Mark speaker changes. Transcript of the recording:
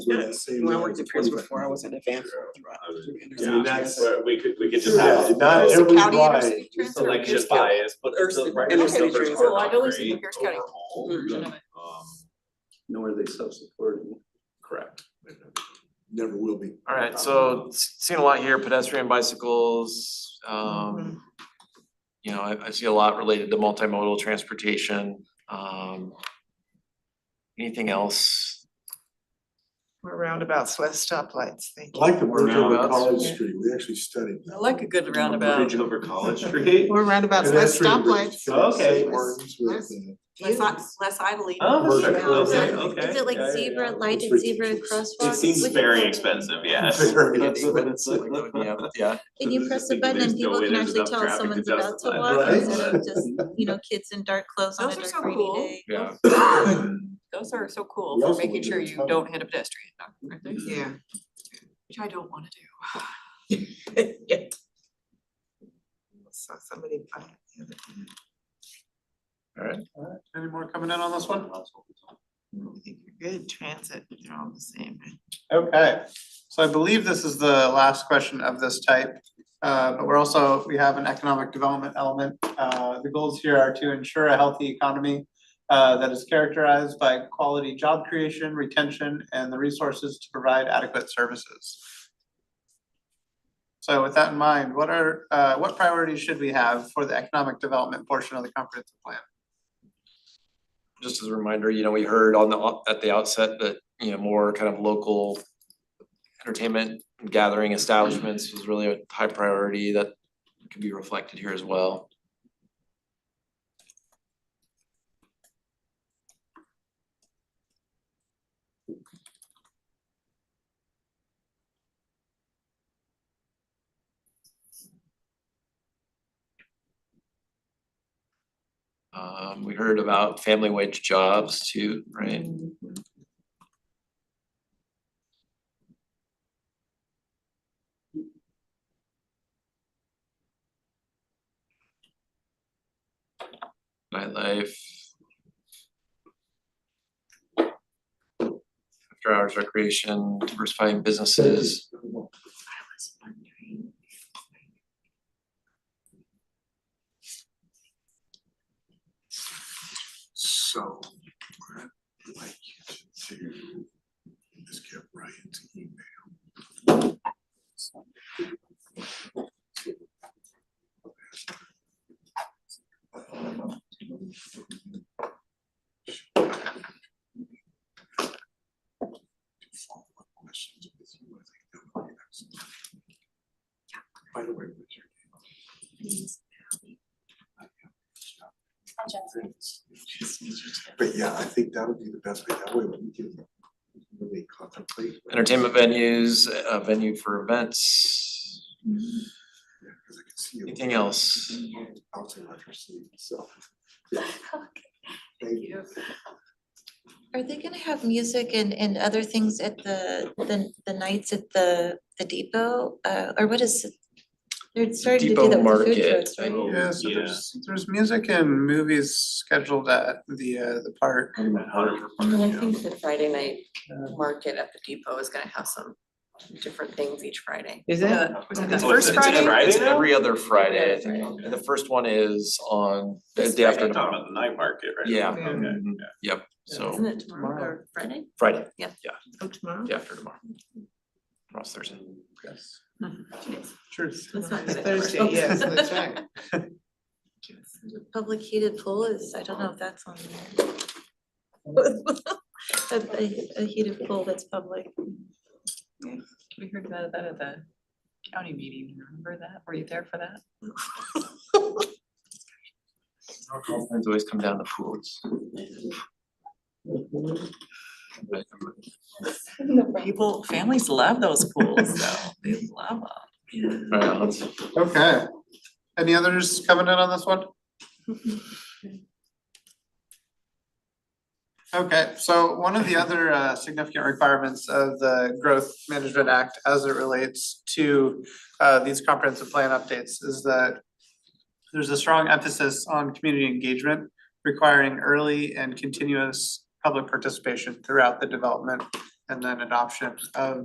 Speaker 1: Yes.
Speaker 2: When I worked at Pierce before, I was in advanced.
Speaker 1: Yeah, and that's-
Speaker 3: Where we could, we could just
Speaker 1: Yeah,
Speaker 3: have
Speaker 1: not
Speaker 2: So county
Speaker 1: everybody.
Speaker 2: intercity transfer?
Speaker 3: selection bias, but
Speaker 2: Or
Speaker 3: the
Speaker 2: s-
Speaker 3: right
Speaker 2: inner
Speaker 3: numbers
Speaker 2: city
Speaker 3: are
Speaker 2: transfer.
Speaker 4: Cool, I've only seen the
Speaker 3: great
Speaker 4: Pierce County.
Speaker 3: overall.
Speaker 5: Mm-hmm.
Speaker 2: Mhm.
Speaker 3: Um,
Speaker 6: know where they self-supporting.
Speaker 3: correct.
Speaker 1: Never will be.
Speaker 7: Alright, so s- seen a lot here, pedestrian bicycles, um. You know, I I see a lot related to multimodal transportation, um. Anything else?
Speaker 8: We're roundabouts, less stoplights, thank
Speaker 1: I
Speaker 8: you.
Speaker 1: like the bridge over
Speaker 7: Roundabouts.
Speaker 1: College Street, we actually studied
Speaker 2: I
Speaker 1: that.
Speaker 2: like a good
Speaker 3: Bridge
Speaker 2: roundabout.
Speaker 3: over College Street.
Speaker 8: We're roundabouts, less
Speaker 1: Pedestrian bridge
Speaker 8: stoplights.
Speaker 1: across
Speaker 3: Okay.
Speaker 1: St. Martin's with the-
Speaker 2: Less, i- less idling.
Speaker 3: Oh, that's
Speaker 1: Commercial.
Speaker 3: right, okay,
Speaker 1: Yeah.
Speaker 3: okay.
Speaker 4: Is it like
Speaker 3: Yeah, yeah, yeah.
Speaker 4: zebra,
Speaker 1: It's
Speaker 4: lighted zebra
Speaker 1: ridiculous.
Speaker 4: crosswalk?
Speaker 3: It seems
Speaker 4: with-
Speaker 3: very expensive, yes.
Speaker 1: Very
Speaker 7: Yeah, yeah,
Speaker 4: And you press the button
Speaker 3: There's
Speaker 4: and
Speaker 3: no
Speaker 4: people
Speaker 3: way
Speaker 4: can
Speaker 3: there's
Speaker 4: actually
Speaker 3: enough
Speaker 4: tell
Speaker 3: traffic to
Speaker 4: someone's about to
Speaker 3: justify
Speaker 4: walk
Speaker 1: that.
Speaker 4: instead of just, you know, kids in dark clothes on a
Speaker 2: Those are
Speaker 4: dark
Speaker 2: so
Speaker 4: rainy
Speaker 2: cool.
Speaker 4: day.
Speaker 7: yeah.
Speaker 2: Those are so
Speaker 1: We
Speaker 2: cool for
Speaker 1: also
Speaker 2: making
Speaker 1: went to
Speaker 2: sure
Speaker 1: the
Speaker 2: you
Speaker 1: tunnel.
Speaker 2: don't hit a pedestrian, aren't they?
Speaker 8: Yeah,
Speaker 2: which I don't wanna do.
Speaker 8: saw somebody buy it the other day.
Speaker 3: Any more coming in on this one?
Speaker 8: I think you're good, transit, they're all the same. right?
Speaker 9: Okay, so I believe this is the last question of this type. Uh, but we're also, we have an economic development element. Uh, the goals here are to ensure a healthy economy uh, that is characterized by quality job creation, retention, and the resources to provide adequate services. So with that in mind, what are, uh, what priorities should we have for the economic development portion of the comprehensive plan?
Speaker 7: Just as a reminder, you know, we heard on the, at the outset that, you know, more kind of local. Entertainment gathering establishments was really a high priority that could be reflected here as well. Um, we heard about family wage jobs too, right? Nightlife. After hours recreation, diversifying businesses.
Speaker 1: So, I'd like you to just get Ryan's email. Follow-up questions with you, I think that would be excellent. By the way, what's your name? But yeah, I think that would be the best way, that way we can really contemplate.
Speaker 7: Entertainment venues, a venue for events,
Speaker 1: Yeah, 'cause I can see you
Speaker 7: anything else?
Speaker 1: bouncing off your seat, so. yeah. Thank you.
Speaker 4: Are they gonna have music and, and other things at the, the, the nights at the, the depot? Uh, or what is it? They're starting to
Speaker 7: Depot
Speaker 4: do that with the food
Speaker 7: Market,
Speaker 4: trucks, right?
Speaker 3: Oh,
Speaker 9: Yeah, so
Speaker 3: yeah.
Speaker 9: there's, there's music and movies scheduled at the, uh, the park. Uh,
Speaker 5: And I think the Friday night market at the depot is gonna have some different things each Friday.
Speaker 8: Is
Speaker 2: The- Was it the
Speaker 7: Oh,
Speaker 3: it's-
Speaker 2: first
Speaker 7: it's
Speaker 2: Friday?
Speaker 3: Friday
Speaker 7: It's
Speaker 3: now?
Speaker 7: every other Friday, I think, and the first one is on the
Speaker 5: This
Speaker 7: day after
Speaker 3: You're
Speaker 7: tomorrow.
Speaker 3: talking about the night market, right?
Speaker 7: Yeah.
Speaker 8: Yeah.
Speaker 3: Okay.
Speaker 7: Mhm. Yep, so
Speaker 5: Isn't it tomorrow or Friday?
Speaker 7: Friday,
Speaker 8: Oh, tomorrow?
Speaker 7: day after tomorrow. Tomorrow's Thursday.
Speaker 9: Truth.
Speaker 5: Let's not do
Speaker 8: It's
Speaker 5: that.
Speaker 8: Thursday, yes, that's right.
Speaker 4: Public heated pool is, I don't know if that's on there. A- A, a heated pool that's public.
Speaker 5: We heard about that at the county meeting, remember that? Were you there for that?
Speaker 7: Friends always come down to pools. But
Speaker 5: People, families love those pools though. They love them.
Speaker 7: Alright, let's,
Speaker 9: Okay. Any others coming in on this one? Okay, so one of the other uh, significant requirements of the Growth Management Act as it relates to uh, these comprehensive plan updates is that there's a strong emphasis on community engagement requiring early and continuous public participation throughout the development and then adoption of